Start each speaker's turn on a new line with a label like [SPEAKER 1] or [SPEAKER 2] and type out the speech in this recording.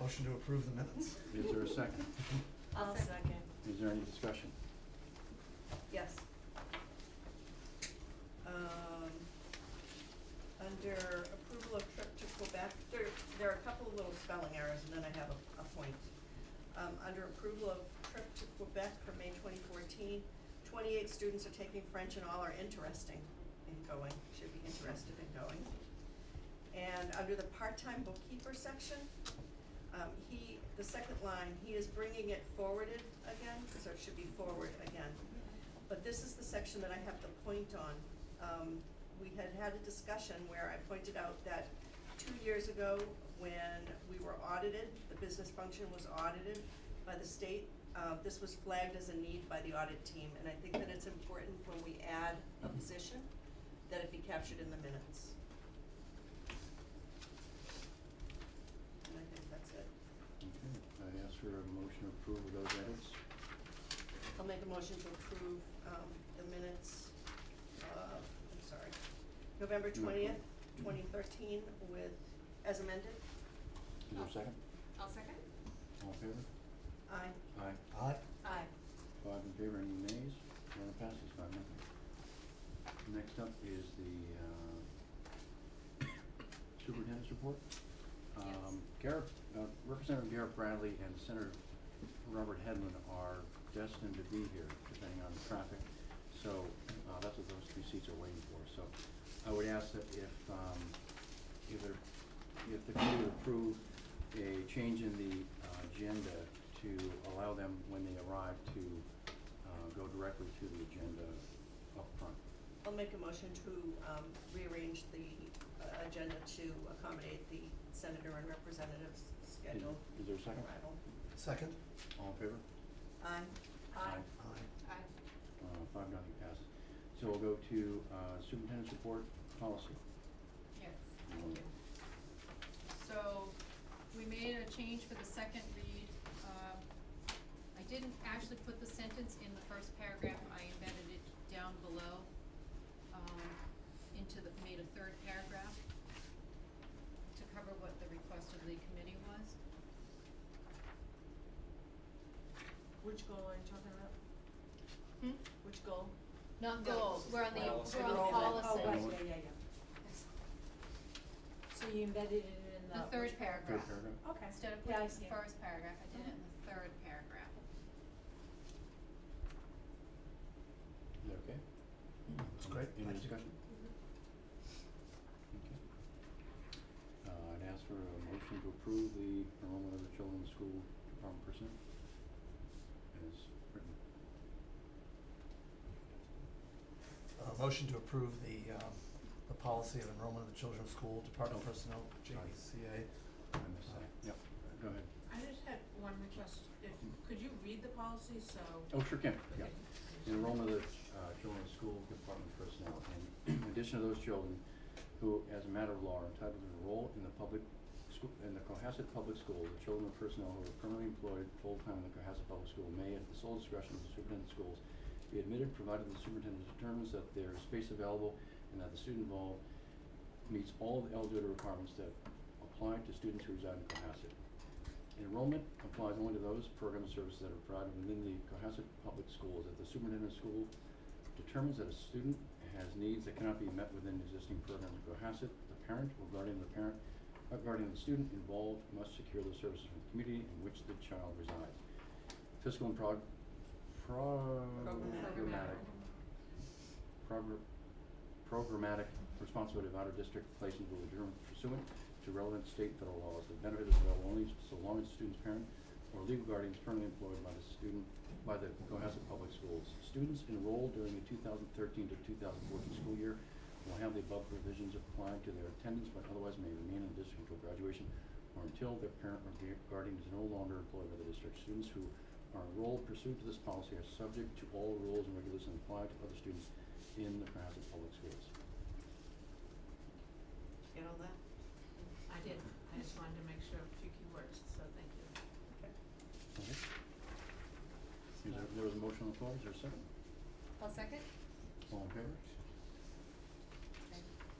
[SPEAKER 1] Motion to approve the minutes.
[SPEAKER 2] Is there a second?
[SPEAKER 3] I'll second.
[SPEAKER 2] Is there any discussion?
[SPEAKER 4] Yes. Um, under approval of trip to Quebec, there, there are a couple of little spelling errors, and then I have a, a point. Um, under approval of trip to Quebec for May 2014, 28 students are taking French and all are interesting in going, should be interested in going. And under the part-time bookkeeper section, um, he, the second line, he is bringing it forwarded again, so it should be forward again. But this is the section that I have the point on. Um, we had had a discussion where I pointed out that two years ago, when we were audited, the business function was audited by the state. Uh, this was flagged as a need by the audit team, and I think that it's important when we add a position, that it be captured in the minutes. And I think that's it.
[SPEAKER 2] Okay, I ask for a motion to approve of those edits.
[SPEAKER 4] I'll make a motion to approve, um, the minutes, uh, I'm sorry, November
[SPEAKER 2] No.
[SPEAKER 4] twentieth, twenty thirteen with, as amended,
[SPEAKER 2] Is there a second?
[SPEAKER 3] I'll second.
[SPEAKER 2] All in favor?
[SPEAKER 4] aye.
[SPEAKER 2] Aye.
[SPEAKER 1] Aye.
[SPEAKER 3] Aye.
[SPEAKER 2] Five in favor, any nays? None passes by nothing. Next up is the uh, superintendent's report. Um, Garrett, uh, Representative Garrett Bradley and Senator Robert Hedlund are destined to be here depending on the traffic. So uh, that's what those three seats are waiting for. So I would ask that if, um, if there, if the committee would approve a change in the uh, agenda to allow them, when they arrive, to uh, go directly to the agenda up front.
[SPEAKER 4] I'll make a motion to, um, rearrange the uh, agenda to accommodate the senator and representative's
[SPEAKER 2] Is-
[SPEAKER 4] scheduled
[SPEAKER 2] Is there a second?
[SPEAKER 4] arrival.
[SPEAKER 1] Second?
[SPEAKER 2] All in favor?
[SPEAKER 4] Aye,
[SPEAKER 3] Aye.
[SPEAKER 1] Aye.
[SPEAKER 3] Aye.
[SPEAKER 2] Uh, Five, nothing passes. So we'll go to uh, superintendent's report policy.
[SPEAKER 3] Yes, thank you. So, we made a change for the second read. Um, I didn't actually put the sentence in the first paragraph, I embedded it down below, um, into the, made a third paragraph to cover what the request of the committee was.
[SPEAKER 5] Which goal are you talking about?
[SPEAKER 3] Hmm?
[SPEAKER 5] Which goal?
[SPEAKER 3] Not
[SPEAKER 5] No,
[SPEAKER 3] goals, we're on the,
[SPEAKER 5] policy.
[SPEAKER 3] we're on the
[SPEAKER 5] Enrollment.
[SPEAKER 3] policy.
[SPEAKER 5] Oh, right,
[SPEAKER 2] Policy.
[SPEAKER 5] yeah, yeah, yeah. So you embedded it in the.
[SPEAKER 3] The third
[SPEAKER 2] Third
[SPEAKER 5] which-
[SPEAKER 3] paragraph.
[SPEAKER 2] paragraph.
[SPEAKER 5] Okay.
[SPEAKER 3] Instead of
[SPEAKER 5] Yeah, I
[SPEAKER 3] putting it in
[SPEAKER 5] see
[SPEAKER 3] the
[SPEAKER 5] it.
[SPEAKER 3] first paragraph, I did it in the third paragraph.
[SPEAKER 2] Is that okay?
[SPEAKER 1] That's great.
[SPEAKER 2] Any
[SPEAKER 1] Thank you.
[SPEAKER 2] discussion? Okay. Uh, I'd ask for a motion to approve the enrollment of the children in the school department percent as written.
[SPEAKER 1] Uh, motion to approve the, um, the policy of enrollment of the children's school department
[SPEAKER 2] Oh.
[SPEAKER 1] personnel, JCA.
[SPEAKER 2] I missed that. Yep, go ahead.
[SPEAKER 5] I just had one request, if, could you read the policy, so.
[SPEAKER 2] Oh, sure can, yeah. The enrollment of the uh, children in school department personnel, in addition to those children who, as a matter of law, are entitled to enroll in the public school, in the Cohasset Public School, the children of personnel who are permanently employed full-time in the Cohasset Public School may, at the sole discretion of the superintendent of schools, be admitted provided the superintendent determines that there is space available and that the student involved meets all of the eligibility requirements that apply to students who reside in Cohasset. Enrollment applies only to those program and services that are provided within the Cohasset Public Schools. If the superintendent of school determines that a student has needs that cannot be met within existing programs in Cohasset, the parent or guardian of the parent, or guardian of the student involved must secure those services from the community in which the child resides. Fiscal and prog- pro-
[SPEAKER 4] Programmatic.
[SPEAKER 2] programmatic progr- programmatic responsibility of out-of-district placement will be determined pursuant to relevant state and federal laws. The benefit is available only so long as the student's parent or legal guardian is permanently employed by the student, by the Cohasset Public Schools. Students enrolled during the two thousand thirteen to two thousand fourteen school year will have the above provisions applied to their attendance, but otherwise may remain in the district until graduation or until their parent or gu- guardian is no longer employed by the district. Students who are enrolled pursuant to this policy are subject to all rules and regulations applied to other students in the Cohasset Public Schools.
[SPEAKER 4] get all that?
[SPEAKER 5] I did, I just wanted to make sure a few key words, so thank you.
[SPEAKER 2] Okay. Is there, there was a motion on the floor, is there a second?
[SPEAKER 3] I'll second.
[SPEAKER 2] All in favor?